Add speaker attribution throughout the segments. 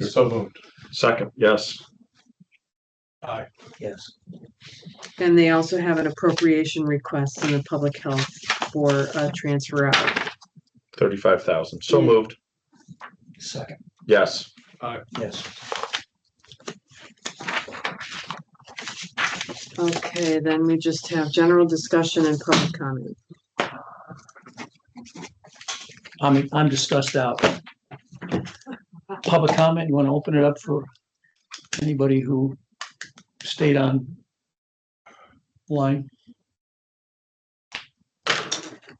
Speaker 1: So moved.
Speaker 2: Second, yes.
Speaker 1: Aye.
Speaker 3: Yes.
Speaker 4: And they also have an appropriation request in the public health for a transfer out.
Speaker 2: Thirty-five thousand. So
Speaker 4: Yeah.
Speaker 2: moved.
Speaker 3: Second,
Speaker 2: Yes.
Speaker 3: yes.
Speaker 4: Okay, then we just have general discussion and public comment.
Speaker 3: I'm, I'm discussed out. Public comment, you want to open it up for anybody who stayed on line?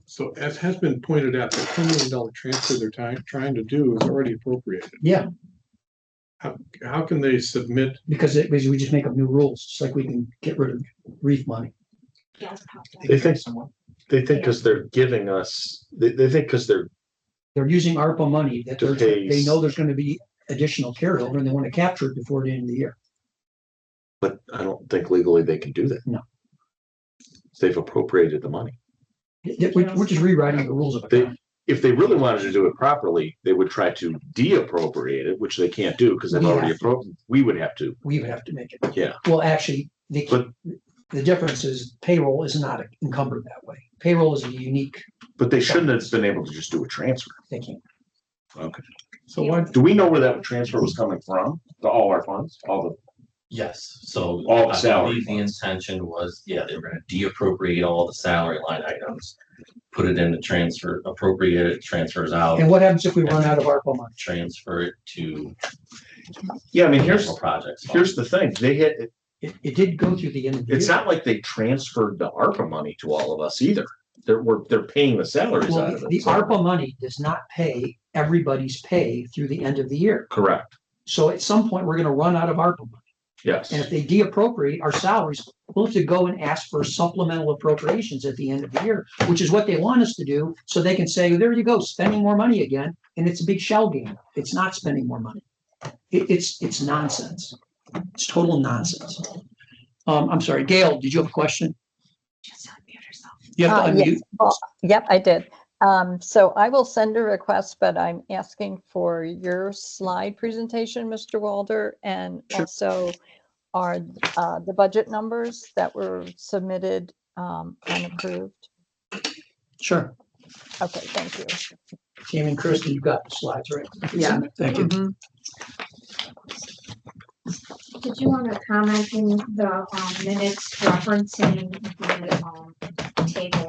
Speaker 1: So as has been pointed out, the ten million dollar transfer they're trying, trying to do is already appropriated.
Speaker 3: Yeah,
Speaker 1: How can they submit,
Speaker 3: because it, because we just make up new rules, just like we can get rid of reef money.
Speaker 5: Yeah.
Speaker 2: They think-
Speaker 3: Someone-
Speaker 2: They think because they're giving us, they, they think because they're,
Speaker 3: They're using ARPA money that
Speaker 2: To
Speaker 3: they're,
Speaker 2: pay
Speaker 3: they
Speaker 2: s-
Speaker 3: know there's going to be additional carryover and they want to capture it before the end of the year.
Speaker 2: but I don't think legally they can do that.
Speaker 3: No.
Speaker 2: They've appropriated the money.
Speaker 3: Yeah, We're, we're just rewriting the rules of
Speaker 2: They-
Speaker 3: it.
Speaker 2: If they really wanted to do it properly, they would try to de-appropriate it, which they can't do because they've
Speaker 3: We
Speaker 2: already
Speaker 3: have
Speaker 2: appropriated. We would have to.
Speaker 3: we would have to make it.
Speaker 2: Yeah.
Speaker 3: Well, actually, the,
Speaker 2: But-
Speaker 3: the difference is payroll is not encumbered that way. Payroll is a unique
Speaker 2: But they shouldn't have been able to just do a transfer.
Speaker 3: thinking.
Speaker 1: so why,
Speaker 2: Do we know where that transfer was coming from? The- All our funds, all the,
Speaker 6: Yes, so.
Speaker 2: All the
Speaker 6: I
Speaker 2: salary
Speaker 6: believe The intention was, yeah, they were gonna deappropriate all the salary line items, put it in the transfer, appropriate it, transfers out,
Speaker 3: And what happens if we run out of ARPA money?
Speaker 6: transfer it to
Speaker 2: yeah, I mean, here's,
Speaker 6: capital projects. fund.
Speaker 2: here's the thing. They had,
Speaker 3: It, it did go through the end of the year.
Speaker 2: it's not like they transferred the ARPA money to all of us either. They're, we're, they're paying the salaries
Speaker 3: Well,
Speaker 2: out
Speaker 3: the
Speaker 2: of it.
Speaker 3: the
Speaker 2: so-
Speaker 3: ARPA money does not pay everybody's pay through the end of the year.
Speaker 2: Correct,
Speaker 3: So at some point, we're gonna run out of ARPA money.
Speaker 2: yes.
Speaker 3: And if they deappropriate our salaries, we'll have to go and ask for supplemental appropriations at the end of the year, which is what they want us to do, so they can say, there you go, spending more money again, and it's a big shell game. It's not spending more money. It, it's, it's nonsense. It's total nonsense. Um, I'm sorry, Gail, did you have a question?
Speaker 5: Just unmute herself.
Speaker 3: You have to
Speaker 7: Uh, yes.
Speaker 3: unmute.
Speaker 7: Yep, I did. Um, so I will send a request, but I'm asking for your slide presentation, Mr. Walder, and
Speaker 3: Sure.
Speaker 7: also are, uh, the budget numbers that were submitted, um, and approved.
Speaker 3: Sure.
Speaker 7: Okay, thank you.
Speaker 3: Tammy and Kristen, you've got the slides, right?
Speaker 4: Yeah.
Speaker 3: Thank you.
Speaker 5: Did you want to comment in the um, minutes referencing the um, table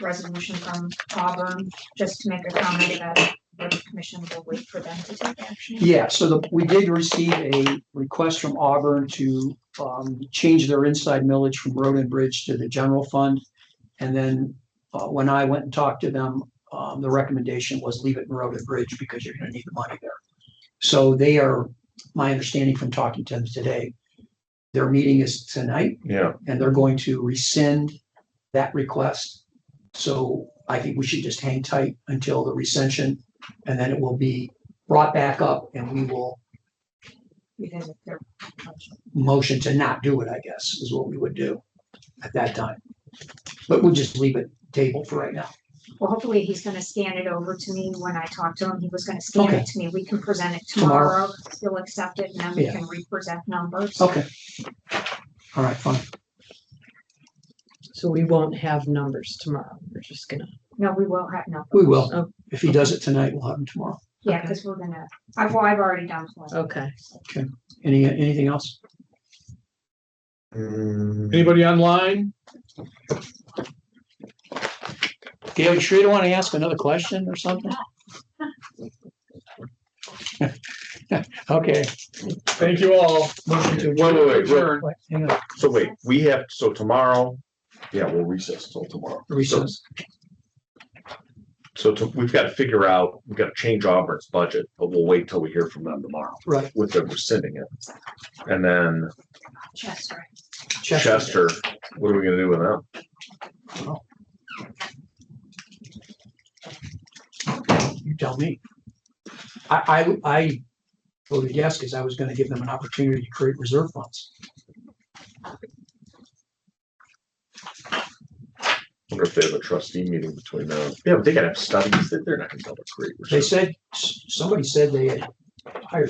Speaker 5: resolution from Auburn, just to make a comment about what the commission will wait for them to take action?
Speaker 3: Yeah, so the, we did receive a request from Auburn to um change their inside millage from road and bridge to the general fund. And then uh when I went and talked to them, um the recommendation was leave it in road and bridge because you're gonna need the money there. So they are, my understanding from talking to them today, their meeting is tonight
Speaker 2: Yeah,
Speaker 3: and they're going to rescind that request. So I think we should just hang tight until the rescension, and then it will be brought back up and we will
Speaker 5: Because if they're-
Speaker 3: motion to not do it, I guess, is what we would do at that time. But we'll just leave it tabled for right now.
Speaker 5: Well, hopefully he's going to scan it over to me when I talk to him. He was going to scan
Speaker 3: Okay.
Speaker 5: it to me. We can present it
Speaker 3: Tomorrow.
Speaker 5: tomorrow. He'll accept it and then we
Speaker 3: Yeah. Oh.
Speaker 5: can re-present numbers.
Speaker 3: Okay. All right, fine.
Speaker 8: So we won't have numbers tomorrow. We're just gonna,
Speaker 5: No, we will have, no.
Speaker 3: We will.
Speaker 8: Oh.
Speaker 3: If he does it tonight, we'll have him tomorrow.
Speaker 5: Yeah,
Speaker 8: Okay.
Speaker 5: because we're going to, I've, well, I've already done. one.
Speaker 4: Oh.
Speaker 8: okay.
Speaker 3: Any, anything else?
Speaker 1: anybody online?
Speaker 3: Gail, you sure you don't want to ask another question or something? Okay.
Speaker 1: Thank you all.
Speaker 3: Motion to
Speaker 2: Wait, wait, wait, wait.
Speaker 1: Adjourn.
Speaker 3: Wait, Hang on.
Speaker 2: So wait, we have, so tomorrow, yeah, we'll recess till tomorrow.
Speaker 3: Recess.
Speaker 2: So to- we've got to figure out, we've got to change Auburn's budget, but we'll wait till we hear from them tomorrow
Speaker 3: Right.
Speaker 2: with them rescinding it. And then
Speaker 5: Chester.
Speaker 2: Chester, what are we gonna do with them?
Speaker 3: You tell me. I, I, I voted yes because I was going to give them an opportunity to create reserve funds.
Speaker 2: Wonder if they have a trustee meeting between now. Yeah, but they gotta have studies that they're not gonna be able to create.
Speaker 3: They said, s- somebody said they had hired